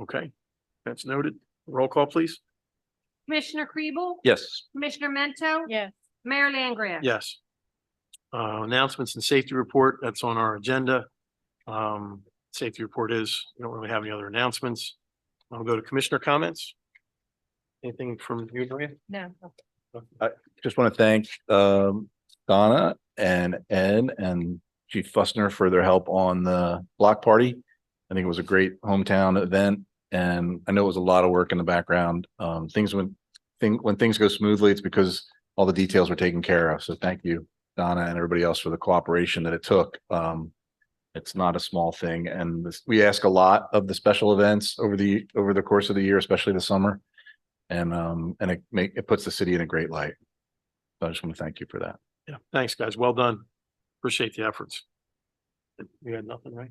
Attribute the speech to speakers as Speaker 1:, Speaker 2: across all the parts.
Speaker 1: Okay, that's noted. Roll call, please.
Speaker 2: Commissioner Kribel?
Speaker 1: Yes.
Speaker 2: Commissioner Mento?
Speaker 3: Yes.
Speaker 2: Mayor Langria?
Speaker 1: Yes. Uh, announcements and safety report, that's on our agenda. Um, safety report is, we don't really have any other announcements. I'll go to commissioner comments. Anything from you, Maria?
Speaker 3: No.
Speaker 4: just want to thank um Donna and Ed and Chief Fussner for their help on the block party. I think it was a great hometown event and I know it was a lot of work in the background. Um, things when thing, when things go smoothly, it's because all the details were taken care of. So thank you, Donna and everybody else for the cooperation that it took. Um, it's not a small thing and this, we ask a lot of the special events over the, over the course of the year, especially the summer. And um, and it make, it puts the city in a great light. So I just want to thank you for that.
Speaker 1: Yeah, thanks, guys. Well done. Appreciate the efforts. You had nothing, right?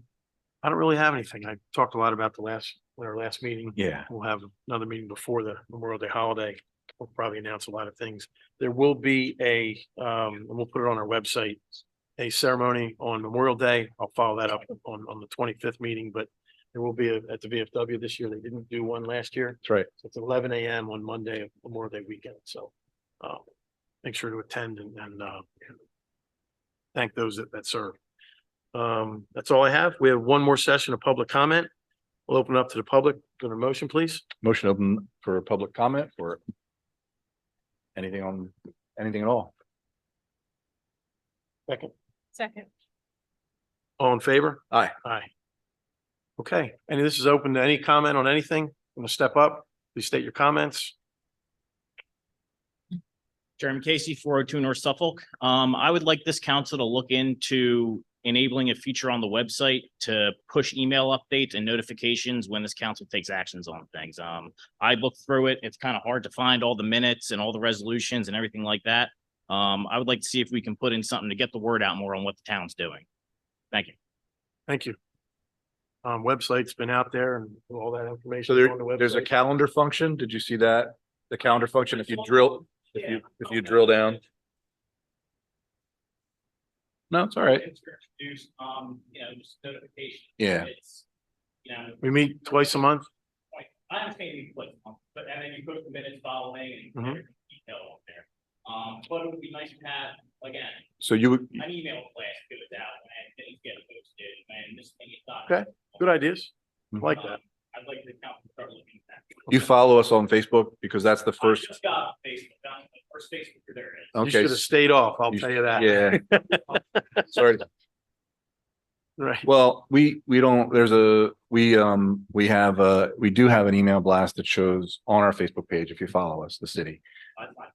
Speaker 1: I don't really have anything. I talked a lot about the last, our last meeting.
Speaker 4: Yeah.
Speaker 1: We'll have another meeting before the Memorial Day holiday. We'll probably announce a lot of things. There will be a, um, and we'll put it on our website. A ceremony on Memorial Day. I'll follow that up on, on the twenty-fifth meeting, but there will be a, at the VFW this year. They didn't do one last year.
Speaker 4: That's right.
Speaker 1: So It's eleven AM on Monday, of Memorial Day weekend, so, uh, make sure to attend and, and, uh, thank those that, that serve. Um, that's all I have. We have one more session of public comment. We'll open up to the public. Got a motion, please?
Speaker 4: Motion open for public comment for anything on, anything at all.
Speaker 1: Second.
Speaker 3: Second.
Speaker 1: All in favor?
Speaker 4: Aye.
Speaker 1: Aye. Okay, and this is open to any comment on anything. Want to step up? Please state your comments.
Speaker 5: Jeremy Casey, four oh two North Suffolk. Um, I would like this council to look into enabling a feature on the website to push email updates and notifications when this council takes actions on things. Um, I looked through it. It's kind of hard to find all the minutes and all the resolutions and everything like that. Um, I would like to see if we can put in something to get the word out more on what the town's doing. Thank you.
Speaker 1: Thank you. Um, website's been out there and all that information.
Speaker 4: So
Speaker 1: is
Speaker 4: there,
Speaker 1: on the
Speaker 4: there's a
Speaker 1: website.
Speaker 4: calendar function. Did you see that? The calendar function, if you drill, if you, if you drill down. No, it's all right.
Speaker 5: Um, you know, just notification.
Speaker 4: Yeah.
Speaker 5: You know,
Speaker 1: We meet twice a month.
Speaker 5: like, I understand you put, um, but and then you put the minutes following and
Speaker 1: Mhm.
Speaker 5: every detail up there. Um, but it would be nice to have, again,
Speaker 4: So you would,
Speaker 5: an email blast to it out and I didn't get it posted and this thing is done.
Speaker 1: Okay, Good ideas. I
Speaker 4: Mm-hmm.
Speaker 1: Like
Speaker 5: Um,
Speaker 1: that.
Speaker 5: I'd like the council to start looking at that.
Speaker 4: you follow us on Facebook because that's the
Speaker 5: I
Speaker 4: first,
Speaker 5: just got Facebook, I'm the first Facebook there is.
Speaker 1: You should
Speaker 4: okay,
Speaker 1: have stayed off, I'll
Speaker 4: You-
Speaker 1: tell you that.
Speaker 4: yeah. Sorry.
Speaker 1: Right,
Speaker 4: Well, we, we don't, there's a, we, um, we have a, we do have an email blast that shows on our Facebook page if you follow us, the city.
Speaker 5: I'd like-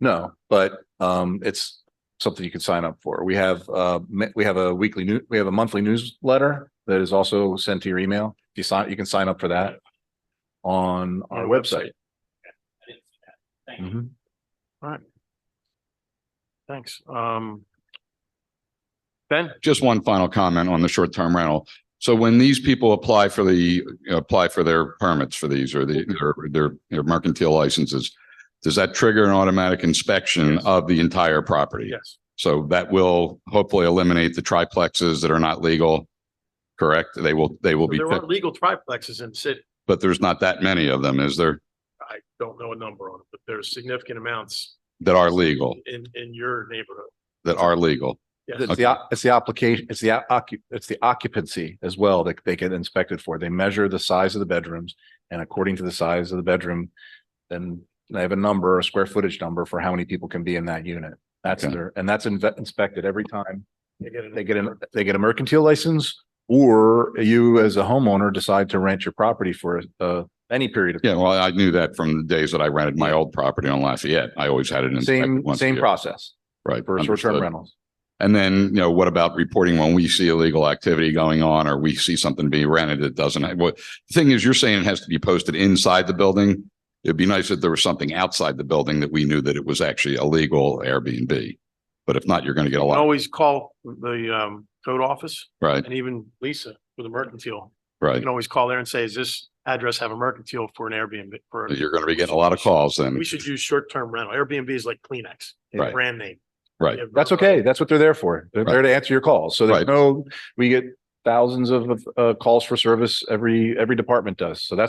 Speaker 4: No, but, um, it's something you can sign up for. We have, uh, me- we have a weekly new, we have a monthly newsletter that is also sent to your email. If you sign, you can sign up for that on our
Speaker 1: Our
Speaker 4: website.
Speaker 5: I didn't see that.
Speaker 1: Mm-hmm.
Speaker 5: Thank you.
Speaker 4: Mhm.
Speaker 1: thanks. Um. Ben,
Speaker 6: just one final comment on the short-term rental. So when these people apply for the, apply for their permits for these or the, their, their- their mercantile licenses, does that trigger an automatic inspection of the entire property?
Speaker 1: yes,
Speaker 6: So that will hopefully eliminate the triplexes that are not legal, correct? They will, they will be,
Speaker 1: there are legal triplexes in the city.
Speaker 6: but there's not that many of them, is there,
Speaker 1: I don't know a number on it, but there's significant amounts
Speaker 6: that are legal,
Speaker 1: in, in your neighborhood.
Speaker 6: that are legal?
Speaker 1: Yes,
Speaker 4: It's the, o- it's the application, it's the occu, it's the occupancy as well that they get inspected for. They measure the size of the bedrooms and according to the size of the bedroom, then they have a number, a square footage number for how many people can be in that unit. That's
Speaker 6: Okay.
Speaker 4: their, and that's inve- inspected every time
Speaker 1: they get it.
Speaker 4: they get an, they get a mercantile license or you as a homeowner decide to rent your property for uh any period of
Speaker 6: Yeah, well, I knew that from the days that I rented my old property on Lafayette. I always had it inspected.
Speaker 4: same,
Speaker 6: once a
Speaker 4: same
Speaker 6: year.
Speaker 4: process
Speaker 6: Right.
Speaker 4: for
Speaker 6: understood.
Speaker 4: short-term rentals.
Speaker 6: And then, you know, what about reporting when we see illegal activity going on or we see something being rented that doesn't? have- Well, the thing is, you're saying it has to be posted inside the building. It'd be nice if there was something outside the building that we knew that it was actually illegal Airbnb. But if not, you're going to get a
Speaker 1: You can
Speaker 6: lot,
Speaker 1: Always call the, um, code office
Speaker 6: right?
Speaker 1: and even Lisa with a mercantile. You
Speaker 6: Right.
Speaker 1: can always call there and say, is this address have a mercantile for an Airbnb? For,
Speaker 6: You're going to be getting a lot of calls then.
Speaker 1: we should use short-term rental. Airbnb is like Kleenex,
Speaker 6: Right.
Speaker 1: brand name.
Speaker 6: Right.
Speaker 1: You have-
Speaker 4: That's okay. That's what they're there for. They're there to answer your calls. So there's
Speaker 6: Right.
Speaker 4: no, we get thousands of, of, uh, calls for service every, every department does. So that's